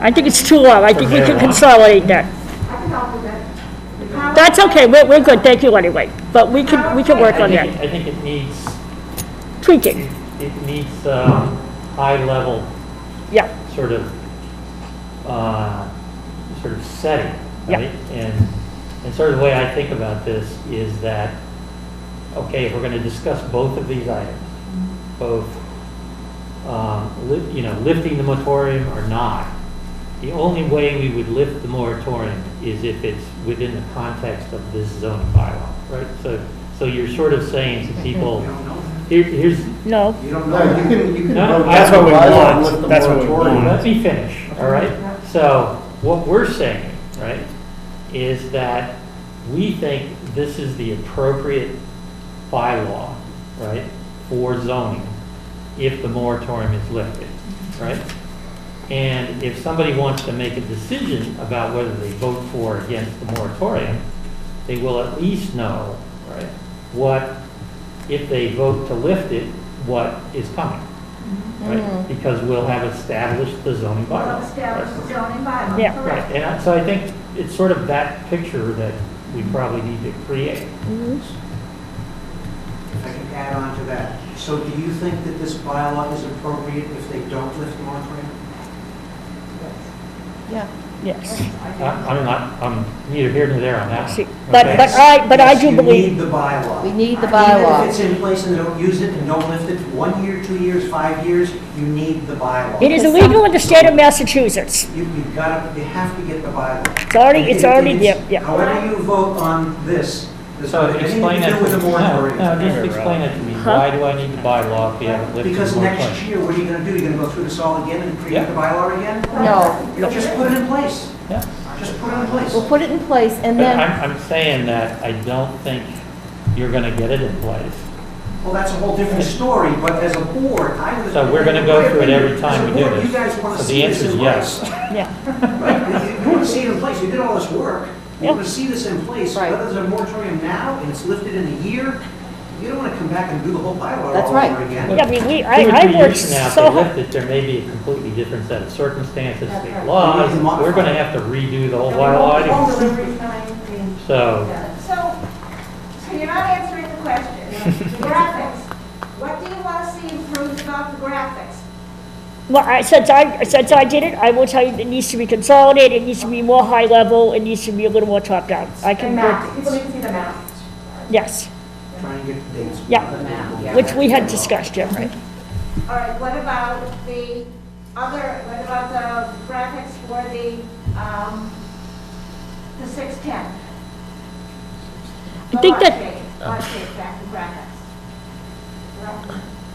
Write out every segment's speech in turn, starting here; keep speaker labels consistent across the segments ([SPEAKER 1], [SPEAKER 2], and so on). [SPEAKER 1] I think it's too low, I think we can consolidate that. That's okay, we're, we're good, thank you anyway, but we can, we can work
[SPEAKER 2] I
[SPEAKER 1] on
[SPEAKER 2] think, it-
[SPEAKER 1] that,
[SPEAKER 2] I think it needs,
[SPEAKER 1] tweaking,
[SPEAKER 2] it it needs uh, high-level
[SPEAKER 1] yeah,
[SPEAKER 2] sort of, uh, sort of setting,
[SPEAKER 1] Yeah.
[SPEAKER 2] right? And, and sort of the way I think about this is that, okay, if we're going to discuss both of these items, both, um, li- you know, lifting the moratorium or not, the only way we would lift the moratorium is if it's within the context of this zoning bylaw, right? So, so you're sort of saying to people, here, here's,
[SPEAKER 1] no,
[SPEAKER 3] You don't know. You can, you can.
[SPEAKER 2] No,
[SPEAKER 3] vote
[SPEAKER 2] that's
[SPEAKER 3] down
[SPEAKER 4] what we
[SPEAKER 3] the bylaw
[SPEAKER 4] want.
[SPEAKER 3] with the
[SPEAKER 4] That's what we
[SPEAKER 3] moratorium.
[SPEAKER 4] want.
[SPEAKER 2] let me finish, all right? So what we're saying, right, is that we think this is the appropriate bylaw, right, for zoning if the moratorium is lifted, right? And if somebody wants to make a decision about whether they vote for or against the moratorium, they will at least know, right, what, if they vote to lift it, what is coming, right? Because we'll have established the zoning bylaw.
[SPEAKER 5] Well, established
[SPEAKER 2] right?
[SPEAKER 5] zoning bylaw.
[SPEAKER 1] Yeah.
[SPEAKER 2] Right,
[SPEAKER 5] correct.
[SPEAKER 2] and I- so I think it's sort of that picture that we probably need to create.
[SPEAKER 6] If I can add on to that, so do you think that this bylaw is appropriate if they don't lift the moratorium?
[SPEAKER 1] yes.
[SPEAKER 2] I- I'm not, I'm neither here nor there on that.
[SPEAKER 1] See,
[SPEAKER 2] one,
[SPEAKER 1] But,
[SPEAKER 2] okay?
[SPEAKER 1] but I, but I
[SPEAKER 6] Yes,
[SPEAKER 1] do
[SPEAKER 6] You
[SPEAKER 1] believe,
[SPEAKER 6] need the bylaw.
[SPEAKER 7] We need
[SPEAKER 6] Even
[SPEAKER 7] the
[SPEAKER 6] if
[SPEAKER 7] bylaw.
[SPEAKER 6] it's in place and they don't use it and don't lift it, one year, two years, five years, you need the bylaw.
[SPEAKER 1] it is illegal in the state of Massachusetts,
[SPEAKER 6] You, you've got to, you have to get the bylaw.
[SPEAKER 1] it's already,
[SPEAKER 6] And
[SPEAKER 1] it's
[SPEAKER 6] it-
[SPEAKER 1] already
[SPEAKER 6] it's-
[SPEAKER 1] there, yeah.
[SPEAKER 6] However you vote on this, there's
[SPEAKER 2] So
[SPEAKER 6] anything
[SPEAKER 2] explain
[SPEAKER 6] to
[SPEAKER 2] that
[SPEAKER 6] do
[SPEAKER 2] to
[SPEAKER 6] with the
[SPEAKER 2] me,
[SPEAKER 6] moratorium.
[SPEAKER 2] no, no, just explain it to me, why do I need the bylaw if we haven't lifted
[SPEAKER 6] Because
[SPEAKER 2] the
[SPEAKER 6] next
[SPEAKER 2] moratorium?
[SPEAKER 6] year, what are you going to do? You're going to go through this all again and
[SPEAKER 2] Yeah.
[SPEAKER 6] create the bylaw again?
[SPEAKER 7] No,
[SPEAKER 6] You Just put it in place.
[SPEAKER 2] Yeah.
[SPEAKER 6] Just put it in place.
[SPEAKER 7] we'll put it in place and
[SPEAKER 2] But
[SPEAKER 7] then,
[SPEAKER 2] I'm, I'm saying that I don't think you're gonna get it in place.
[SPEAKER 6] Well, that's a whole different story, but as a board, I would.
[SPEAKER 2] So we're gonna go through it every time we do
[SPEAKER 6] As a board,
[SPEAKER 2] this.
[SPEAKER 6] you guys
[SPEAKER 2] So
[SPEAKER 6] want to
[SPEAKER 2] the
[SPEAKER 6] see this
[SPEAKER 2] answer is
[SPEAKER 6] in
[SPEAKER 2] yes.
[SPEAKER 6] place.
[SPEAKER 1] Yeah,
[SPEAKER 6] Right? You want to see it in place, you did all this work, you
[SPEAKER 1] Yeah.
[SPEAKER 6] want to see this in place,
[SPEAKER 7] Right.
[SPEAKER 6] whether there's a moratorium now and it's lifted in a year, you don't want to come back and do the whole bylaw all
[SPEAKER 7] That's
[SPEAKER 6] over
[SPEAKER 7] right.
[SPEAKER 6] again.
[SPEAKER 1] yeah, I mean, we,
[SPEAKER 2] Two or
[SPEAKER 1] I,
[SPEAKER 2] three
[SPEAKER 1] I worked
[SPEAKER 2] years from now, if
[SPEAKER 1] so
[SPEAKER 2] they
[SPEAKER 1] hard.
[SPEAKER 2] lift it, there may be a completely different set of circumstances, state
[SPEAKER 5] right.
[SPEAKER 2] laws,
[SPEAKER 6] We need to
[SPEAKER 2] we're gonna
[SPEAKER 6] modify it.
[SPEAKER 2] have to redo the whole
[SPEAKER 5] The whole-
[SPEAKER 2] bylaw.
[SPEAKER 5] the whole
[SPEAKER 2] anyway.
[SPEAKER 5] delivery time, the-
[SPEAKER 2] So,
[SPEAKER 5] yeah. So, so you're not answering the question. The graphics, what do you want to see improved about the graphics?
[SPEAKER 1] Well, I, since I, since I did it, I will tell you, it needs to be consolidated, it needs to be more high level, it needs to be a little more top down. I
[SPEAKER 5] The
[SPEAKER 1] can
[SPEAKER 5] maps,
[SPEAKER 1] work,
[SPEAKER 5] people need to see the maps.
[SPEAKER 1] yes,
[SPEAKER 6] Try and get the dates.
[SPEAKER 1] Yeah. which we had discussed, yeah, right.
[SPEAKER 5] All right, what about the other, what about the graphics for the, um, the 610?
[SPEAKER 1] I think that-
[SPEAKER 5] Logic, graphic, graphics.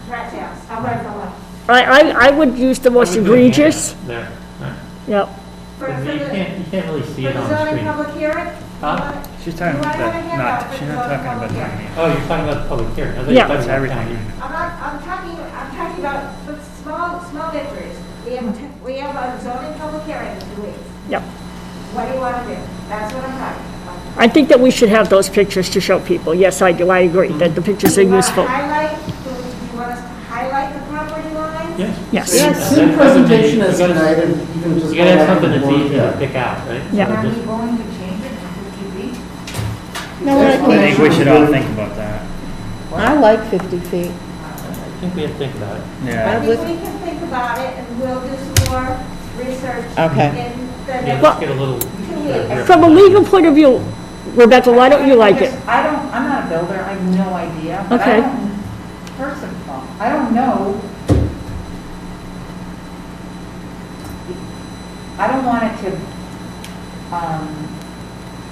[SPEAKER 5] Rectangles, I'm right for one.
[SPEAKER 1] I, I, I would use the most
[SPEAKER 2] I would put a hand
[SPEAKER 1] egregious,
[SPEAKER 2] up There, Right.
[SPEAKER 1] yeah,
[SPEAKER 5] For
[SPEAKER 2] But You
[SPEAKER 5] the,
[SPEAKER 2] can't, you can't really see
[SPEAKER 5] for
[SPEAKER 2] it
[SPEAKER 5] the
[SPEAKER 2] on the
[SPEAKER 5] zoning
[SPEAKER 2] screen.
[SPEAKER 5] public hearing?
[SPEAKER 2] Huh?
[SPEAKER 4] She's talking about that, not, she's not talking about the money.
[SPEAKER 2] Oh, you're talking about the public hearing. I thought you were
[SPEAKER 1] Yeah.
[SPEAKER 2] talking
[SPEAKER 4] That's
[SPEAKER 2] about
[SPEAKER 4] everything.
[SPEAKER 2] county.
[SPEAKER 5] I'm not, I'm talking, I'm talking about the small, small victories. We have, we have a zoning public hearing in two weeks.
[SPEAKER 1] yeah.
[SPEAKER 5] What do you want to do? That's what I'm talking about.
[SPEAKER 1] I think that we should have those pictures to show people, yes, I do, I agree, that the pictures are
[SPEAKER 5] You wanna
[SPEAKER 1] useful,
[SPEAKER 5] Highlight, do you want us to highlight the property lines?
[SPEAKER 2] Yes.
[SPEAKER 1] yes.
[SPEAKER 2] Same presentation as
[SPEAKER 3] tonight, and you can just
[SPEAKER 2] You gotta
[SPEAKER 3] go back
[SPEAKER 2] have something
[SPEAKER 3] and
[SPEAKER 2] that's
[SPEAKER 3] forth,
[SPEAKER 2] easy
[SPEAKER 3] yeah.
[SPEAKER 2] to pick out, right?
[SPEAKER 1] Yeah.
[SPEAKER 2] So
[SPEAKER 5] Are
[SPEAKER 2] just-
[SPEAKER 5] we going to change it from fifty feet?
[SPEAKER 4] I think we should all think about that.
[SPEAKER 7] I like 50 feet.
[SPEAKER 2] I think we have to think about it.
[SPEAKER 5] I
[SPEAKER 4] Yeah.
[SPEAKER 5] think we can think about it and we'll do some more research.
[SPEAKER 7] Okay.
[SPEAKER 5] In the
[SPEAKER 2] Yeah,
[SPEAKER 5] next
[SPEAKER 2] let's get a little.
[SPEAKER 1] From a legal point of view, Rebecca, why don't you like it?
[SPEAKER 8] I don't, I'm not a builder, I have no idea. but I
[SPEAKER 1] Okay.
[SPEAKER 8] don't- First of all, I don't know. I don't want it to, um,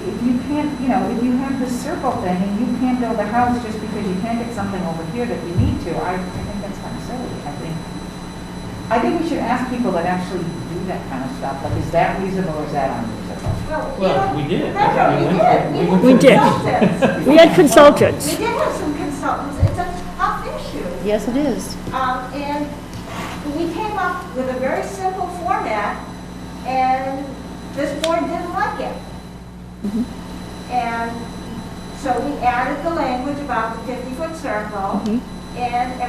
[SPEAKER 8] if you can't, you know, if you have this circle thing and you can't build a house just because you can't get something over here that you need to, I, I think that's kind of silly, I think. I think we should ask people that actually do that kind of stuff, like, is that reasonable or is that unreasonable?
[SPEAKER 2] Well, we did.
[SPEAKER 5] Remember, we did, we had
[SPEAKER 1] We did.
[SPEAKER 5] consultants. We
[SPEAKER 1] We had consultants,
[SPEAKER 5] did have some consultants, it's a tough issue.
[SPEAKER 7] Yes, it is.
[SPEAKER 5] Um, and we came up with a very simple format, and this board didn't like it. And so we added the language about the fifty-foot circle, and